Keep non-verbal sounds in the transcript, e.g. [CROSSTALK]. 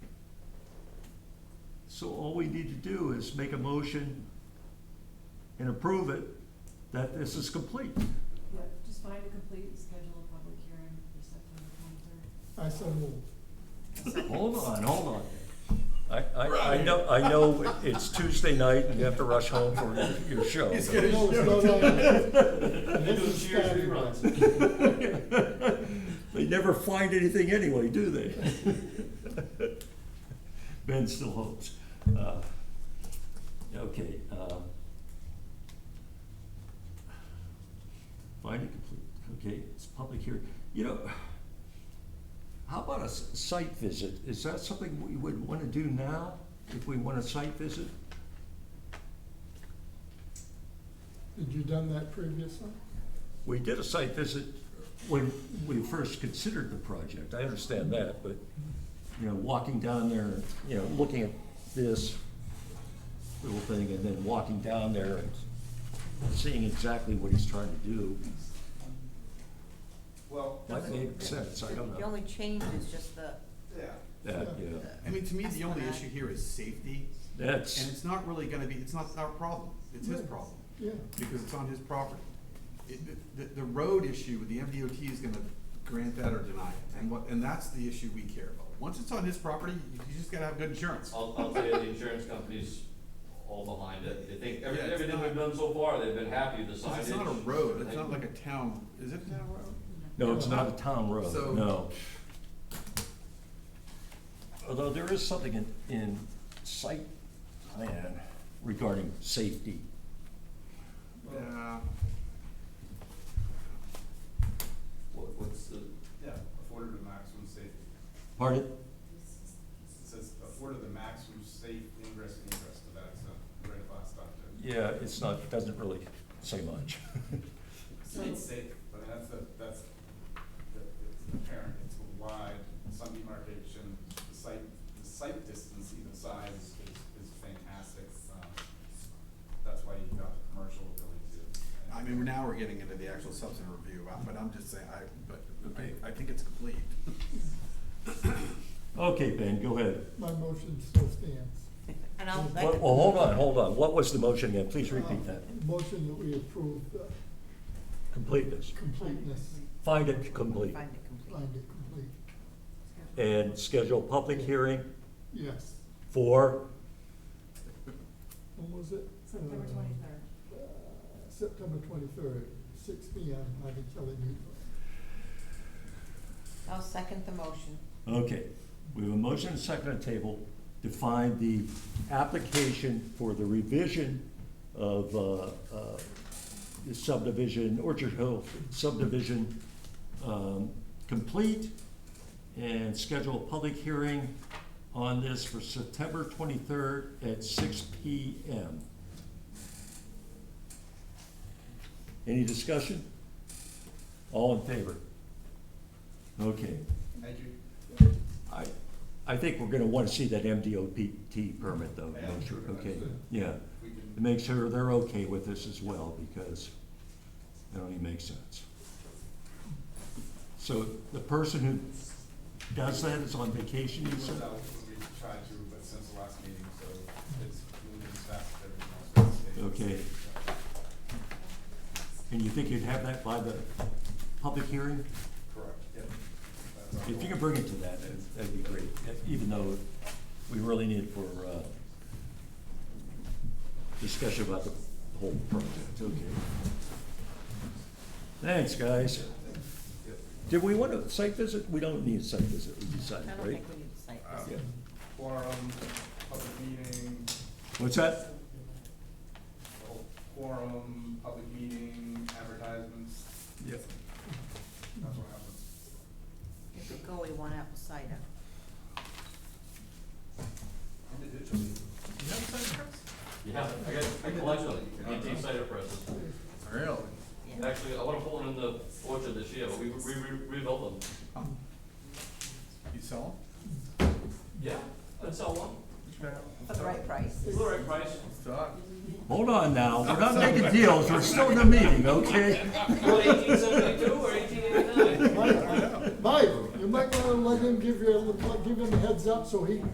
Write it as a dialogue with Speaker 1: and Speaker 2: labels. Speaker 1: So all we need to do is make a motion and approve it, that this is complete.
Speaker 2: Yeah, just find a complete schedule of public hearing for September twenty-third.
Speaker 3: I so move.
Speaker 1: Hold on, hold on. I, I, I know, I know it's Tuesday night and you have to rush home for your show.
Speaker 4: He's
Speaker 1: but-
Speaker 4: gonna-
Speaker 3: No, no, no,
Speaker 4: [LAUGHS]
Speaker 3: no.
Speaker 4: They do
Speaker 3: This is
Speaker 4: Cheers
Speaker 3: Saturday.
Speaker 4: reruns.
Speaker 1: They never find anything anyway, do they? Ben still hopes. Uh, Okay. um, Find it complete, okay, it's public hearing. You know, how about a s- site visit? Is that something we would want to do now, if we want a site visit?
Speaker 3: Had you done that previously?
Speaker 1: We did a site visit when we first considered the project, I understand that, but, you know, walking down there, you know, looking at this little thing and then walking down there and seeing exactly what he's trying to do,
Speaker 4: Well,
Speaker 1: that made sense, I don't
Speaker 5: The
Speaker 1: know.
Speaker 5: only change is just the,
Speaker 4: yeah.
Speaker 1: That, yeah,
Speaker 6: I mean, to me, the only
Speaker 5: Esplanade.
Speaker 6: issue here is safety, and
Speaker 1: that's,
Speaker 6: it's not really gonna be, it's not our problem, it's his
Speaker 3: Yeah.
Speaker 6: problem,
Speaker 3: Yeah.
Speaker 6: because it's on his property. It, the, the road issue, the MDOT is gonna grant that or deny it, and what, and that's the issue we care about. Once it's on his property, you you just gotta have good insurance.
Speaker 4: I'll, I'll tell you, the insurance company's all behind it, they think, every-
Speaker 6: Yeah, it's
Speaker 4: everything we've
Speaker 6: not-
Speaker 4: done so far, they've been happy with the
Speaker 6: 'Cause
Speaker 4: signage.
Speaker 6: It's not a road, it's
Speaker 4: They-
Speaker 6: not like a town, is it a town road?
Speaker 1: no, it's not a town road,
Speaker 6: So-
Speaker 1: no. Although there is something in, in site plan regarding safety.
Speaker 6: Yeah,
Speaker 7: What, what's the
Speaker 8: Yeah, afforded the maximum safe,
Speaker 1: Pardon?
Speaker 8: it says afforded the maximum safe ingress and egress to that extent, right at last time. too.
Speaker 1: Yeah, it's not, doesn't really say much. [LAUGHS]
Speaker 2: So,
Speaker 8: It's safe, but that's the, that's, the- it's apparent, it's wide, sun demarcation, the site, the site distance either side is, is, is fantastic. um, That's why you've got the commercial going to. and-
Speaker 6: I mean, now we're getting into the actual substantive review, but I'm just saying, I, but, I, I think it's complete.
Speaker 1: Okay, Ben, go ahead.
Speaker 3: My motion still stands.
Speaker 5: and I'll
Speaker 1: Well, well,
Speaker 5: second.
Speaker 1: hold on, hold on. What was the motion again? Please repeat
Speaker 3: Uh,
Speaker 1: that.
Speaker 3: Motion that we approve the
Speaker 1: Completeness.
Speaker 3: completeness,
Speaker 1: Find it complete
Speaker 5: Find it complete.
Speaker 3: find it complete.
Speaker 1: and schedule public hearing
Speaker 3: Yes.
Speaker 1: for,
Speaker 3: When was it?
Speaker 2: September
Speaker 3: Uh,
Speaker 2: twenty-third.
Speaker 3: uh, September twenty-third, six P M, Hobby Kelly Meeting.
Speaker 5: I'll second the motion.
Speaker 1: okay. We have a motion and second on the table to find the application for the revision of uh, uh, the subdivision, Orchard Hill subdivision, um, complete and schedule a public hearing on this for September twenty-third at six P M. Any discussion? All in favor? Okay.
Speaker 8: Thank you.
Speaker 1: I, I think we're gonna wanna see that MDOT permit though,
Speaker 8: Yeah,
Speaker 1: make sure,
Speaker 8: sure,
Speaker 1: okay,
Speaker 8: absolutely.
Speaker 1: yeah.
Speaker 8: We can-
Speaker 1: To make sure they're okay with this as well, because that only makes sense. So the person who does that is on vacation, you
Speaker 8: We
Speaker 1: said?
Speaker 8: out when we tried to, but since the last meeting, so it's moving as fast as everything else. but it's-
Speaker 1: Okay. And you think you'd have that by the public hearing?
Speaker 8: Correct, yep. That's our
Speaker 1: If you
Speaker 8: goal.
Speaker 1: could bring it to that, that'd- that'd be great, e, even though we really need it for, uh, discussion about the whole project, okay. Thanks, guys. Did we want a site visit? We don't need a site visit, we
Speaker 5: I
Speaker 1: decided,
Speaker 5: don't
Speaker 1: right?
Speaker 5: think we need to say
Speaker 8: Uh,
Speaker 5: this.
Speaker 1: Yeah.
Speaker 8: Quorum, public meeting,
Speaker 1: What's that?
Speaker 8: quorum, public meeting, advertisements,
Speaker 1: Yeah.
Speaker 8: that's what happens.
Speaker 5: If we go, we want apple cider.
Speaker 8: Individually.
Speaker 4: Yeah, I got, I collection, antique cider presses.
Speaker 6: Really?
Speaker 5: Yeah.
Speaker 4: Actually, I wanna put one in the orchard this year, but we, we re- rebuilt them.
Speaker 6: Um, You sell
Speaker 4: Yeah, I'd sell one,
Speaker 6: them?
Speaker 5: For the right price.
Speaker 4: it's the right price.
Speaker 6: Stop.
Speaker 1: Hold on now, we're [LAUGHS] not making deals, we're still in the meeting, okay?
Speaker 4: eighteen seventy-two or eighteen eighty-nine?
Speaker 3: Mike, you might wanna let him give you, a- give him a heads up so he